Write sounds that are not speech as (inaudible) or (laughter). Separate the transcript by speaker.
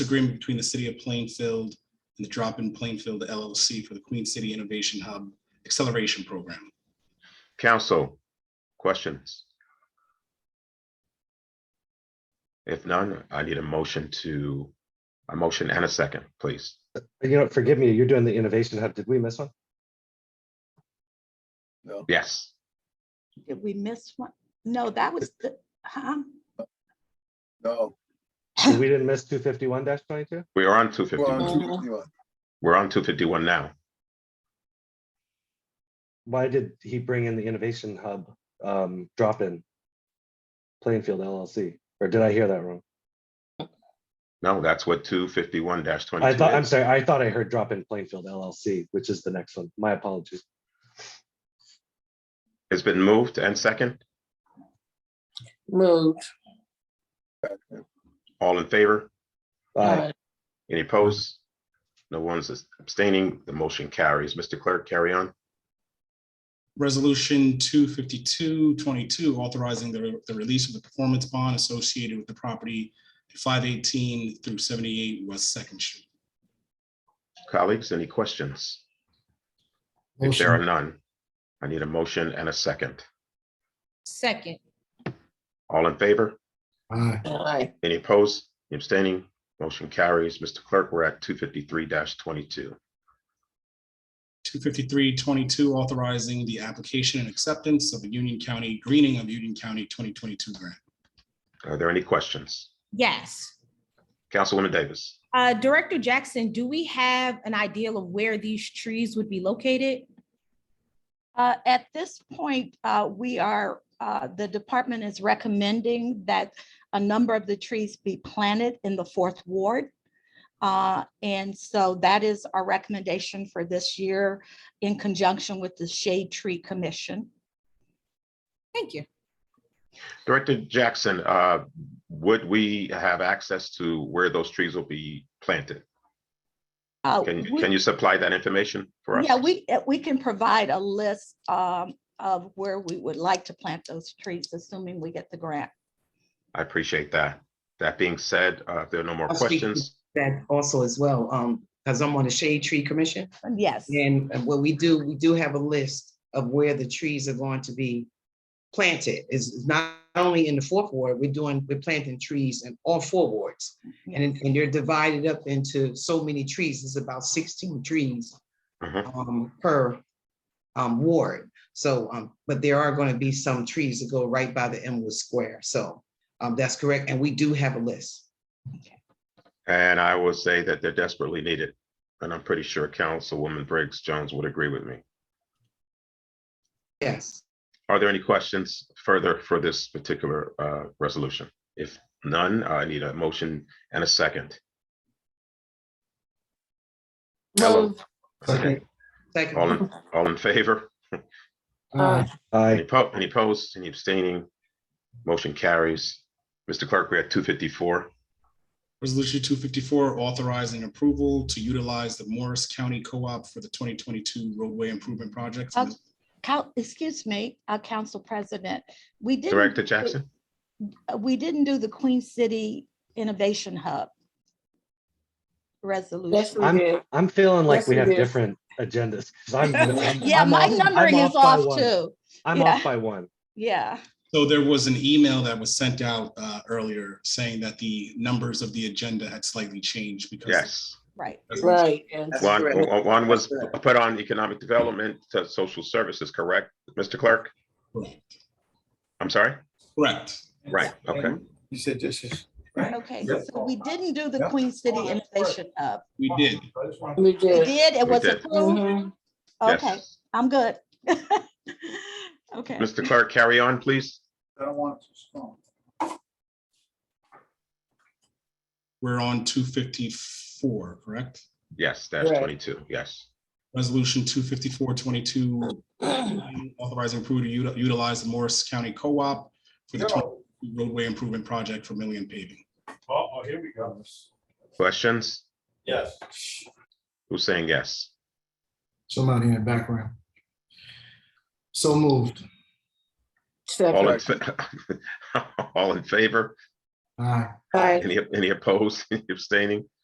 Speaker 1: agreement between the City of Plainfield and the Drop in Plainfield LLC for the Queen City Innovation Hub Acceleration Program.
Speaker 2: Council, questions? If none, I need a motion to, a motion and a second, please.
Speaker 3: You know, forgive me, you're doing the innovation hub. Did we miss one?
Speaker 2: Yes,
Speaker 4: Did we miss one? No, that was the, huh?
Speaker 5: No.
Speaker 3: So We didn't miss two fifty-one twenty-two?
Speaker 2: we are on two
Speaker 5: we're on
Speaker 2: fifty-one.
Speaker 4: Well-
Speaker 5: $2.51.
Speaker 2: We're on two fifty-one now.
Speaker 3: Why did he bring in the innovation hub um drop-in? Plainfield LLC, or did I hear that wrong?
Speaker 2: No, that's what two fifty-one
Speaker 3: I
Speaker 2: twenty-two
Speaker 3: thought, I'm
Speaker 2: is.
Speaker 3: sorry, I thought I heard drop-in Plainfield LLC, which is the next one. My apologies.
Speaker 2: It's been moved and second.
Speaker 6: Moved.
Speaker 2: All in favor?
Speaker 3: Aye.
Speaker 7: uh,
Speaker 2: Any opposed? No one's abstaining. The motion carries. Mr. Clerk, carry on.
Speaker 1: Resolution 252-22 authorizing the the release of the performance bond associated with the property at 518 through 78 West Second Street.
Speaker 2: Colleagues, any questions? If there are
Speaker 8: Motion,
Speaker 2: none, I need a motion and a second.
Speaker 9: Second,
Speaker 2: All in favor?
Speaker 8: aye,
Speaker 6: Aye.
Speaker 2: Any opposed, Any abstaining, motion carries. Mr. Clerk, we're at two fifty-three twenty-two.
Speaker 1: 253-22 authorizing the application and acceptance of the Union County greening of Union County 2022 grant.
Speaker 2: Are there any questions?
Speaker 9: yes.
Speaker 2: Councilwoman Davis,
Speaker 9: Uh, Director Jackson, do we have an idea of where these trees would be located?
Speaker 4: Uh, At this point, uh, we are, uh, the department is recommending that a number of the trees be planted in the fourth ward. Uh, And so that is our recommendation for this year in conjunction with the Shade Tree Commission.
Speaker 9: Thank you.
Speaker 2: Director Jackson, uh, would we have access to where those trees will be planted?
Speaker 4: Uh,
Speaker 2: Can,
Speaker 4: we-
Speaker 2: can you supply that information for us?
Speaker 4: Yeah, we, uh, we can provide a list um, of where we would like to plant those trees, assuming we get the grant.
Speaker 2: I appreciate that. That being said, uh, if there are no more
Speaker 6: I'll speak.
Speaker 2: questions,
Speaker 6: That also as well, um, because I'm on the Shade Tree Commission.
Speaker 4: Yes,
Speaker 6: And what we do, we do have a list of where the trees are going to be planted. It's not only in the fourth ward, we're doing, we're planting trees in all four wards. And, and they're divided up into so many trees. It's about sixteen trees
Speaker 2: Mhm.
Speaker 6: um, per um, ward. So, um, but there are going to be some trees that go right by the Elmwood Square. So um, that's correct. And we do have a list.
Speaker 2: and I will say that they're desperately needed. And I'm pretty sure Councilwoman Briggs Jones would agree with me.
Speaker 6: Yes.
Speaker 2: Are there any questions further for this particular uh, resolution? If none, I need a motion and a second. Hello.
Speaker 7: Move,
Speaker 8: Second.
Speaker 6: Second.
Speaker 2: All in, all in favor?
Speaker 7: uh,
Speaker 8: aye,
Speaker 2: Any
Speaker 3: Aye.
Speaker 2: po- any opposed, any abstaining? Motion carries. Mr. Clerk, we're at two fifty-four.
Speaker 1: Resolution two fifty-four authorizing approval to utilize the Morris County Co-op for the twenty twenty-two roadway improvement project.
Speaker 4: Okay. Coun- excuse me, uh, Council President, we didn't.
Speaker 2: Director
Speaker 4: do-
Speaker 2: Jackson,
Speaker 4: uh, We didn't do the Queen City Innovation Hub resolution.
Speaker 3: I'm- I'm feeling like
Speaker 6: Yes,
Speaker 3: we
Speaker 6: we
Speaker 3: have
Speaker 6: did.
Speaker 3: different agendas. 'cause
Speaker 4: (laughs)
Speaker 3: I'm- I'm-
Speaker 4: Yeah,
Speaker 3: I'm
Speaker 4: my
Speaker 3: off- I'm
Speaker 4: numbering is
Speaker 3: by
Speaker 4: off
Speaker 3: one.
Speaker 4: too.
Speaker 3: I'm
Speaker 4: yeah.
Speaker 3: off by one.
Speaker 4: Yeah,
Speaker 1: So there was an email that was sent out uh, earlier saying that the numbers of the agenda had slightly changed because.
Speaker 2: yes.
Speaker 4: right.
Speaker 7: right, and
Speaker 6: That's
Speaker 2: One,
Speaker 6: correct.
Speaker 2: one one was put on economic development to social services, correct, Mr. Clerk? I'm sorry?
Speaker 1: Correct.
Speaker 2: Right, okay.
Speaker 5: You said this is.
Speaker 4: Okay, so we didn't do the
Speaker 5: Yeah.
Speaker 4: Queen City Innovation Hub.
Speaker 1: We did.
Speaker 7: we
Speaker 4: We
Speaker 7: did.
Speaker 4: did, it
Speaker 2: We
Speaker 4: was
Speaker 2: did.
Speaker 4: approved.
Speaker 7: Mhm.
Speaker 3: Mm-hmm.
Speaker 4: Okay,
Speaker 2: Yes.
Speaker 4: I'm good. (laughs) Okay.
Speaker 2: Mr. Clerk, carry on, please.
Speaker 5: I don't want it to stop.
Speaker 1: We're on two fifty-four, correct?
Speaker 2: Yes, that's
Speaker 7: Right.
Speaker 2: twenty-two, yes.
Speaker 1: Resolution two fifty-four twenty-two
Speaker 7: Mm-hmm. (clears throat)
Speaker 1: authorizing approval to uti- utilize the Morris County Co-op for the 2022 roadway improvement project for Million paving.
Speaker 5: Oh, here we go.
Speaker 2: Questions?
Speaker 5: Yes.
Speaker 2: Who's saying yes?
Speaker 8: somebody in the background. So moved,
Speaker 2: All in,
Speaker 7: Second,
Speaker 2: (laughs) fa- all in favor?
Speaker 8: Aye.
Speaker 7: Aye.
Speaker 2: Any, any opposed, (laughs) Any abstaining?